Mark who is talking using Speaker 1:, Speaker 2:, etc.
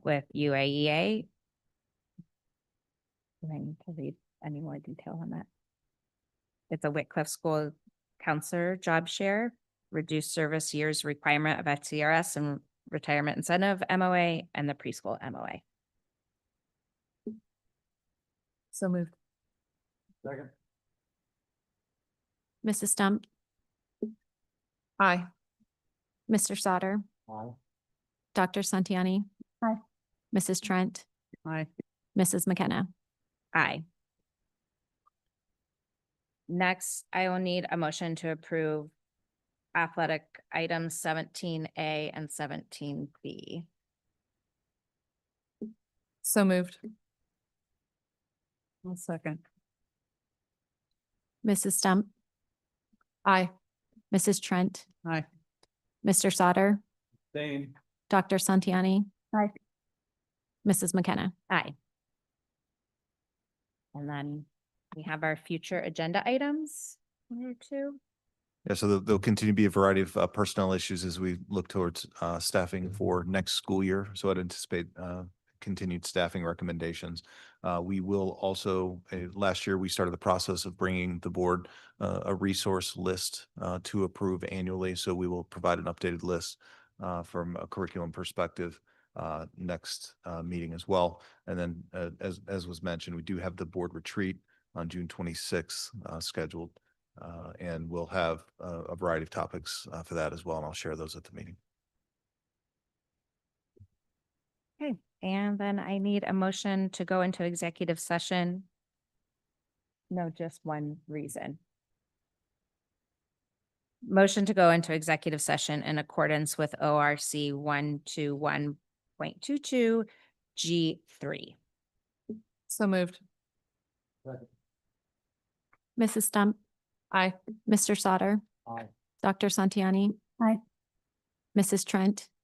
Speaker 1: with UAEA. Do I need to read any more detail on that? It's a Whitcliffe School Counselor Job Share, reduced service years requirement of FCRS and retirement incentive MOA and the preschool MOA.
Speaker 2: So moved.
Speaker 3: Second.
Speaker 4: Mrs. Stump,
Speaker 2: Aye.
Speaker 4: Mr. Sauter,
Speaker 3: Aye.
Speaker 4: Dr. Santiani.
Speaker 2: Aye.
Speaker 4: Mrs. Trent,
Speaker 2: Aye.
Speaker 4: Mrs. McKenna.
Speaker 1: Aye. Next, I will need a motion to approve athletic items seventeen A and seventeen B.
Speaker 2: So moved. One second.
Speaker 4: Mrs. Stump,
Speaker 2: Aye.
Speaker 4: Mrs. Trent.
Speaker 2: Aye.
Speaker 4: Mr. Sauter,
Speaker 3: Same.
Speaker 4: Dr. Santiani.
Speaker 2: Aye.
Speaker 4: Mrs. McKenna.
Speaker 1: Aye. And then we have our future agenda items, one or two.
Speaker 5: Yeah, so there'll- there'll continue to be a variety of uh, personnel issues as we look towards uh, staffing for next school year. So I'd anticipate uh, continued staffing recommendations. Uh, We will also, uh, last year, we started the process of bringing the board uh, a resource list uh, to approve annually. So we will provide an updated list uh, from a curriculum perspective uh, next uh, meeting as well. And then, uh, as, as was mentioned, we do have the board retreat on June twenty-sixth scheduled uh, and we'll have uh, a variety of topics uh, for that as well, and I'll share those at the meeting.
Speaker 1: And then I need a motion to go into executive session. No, just one reason. Motion to go into executive session in accordance with O R C one two one point two two G three.
Speaker 2: So moved.
Speaker 3: Second.
Speaker 4: Mrs. Stump,
Speaker 2: Aye.
Speaker 4: Mr. Sauter,
Speaker 3: Aye.
Speaker 4: Dr. Santiani.
Speaker 2: Aye.
Speaker 4: Mrs. Trent,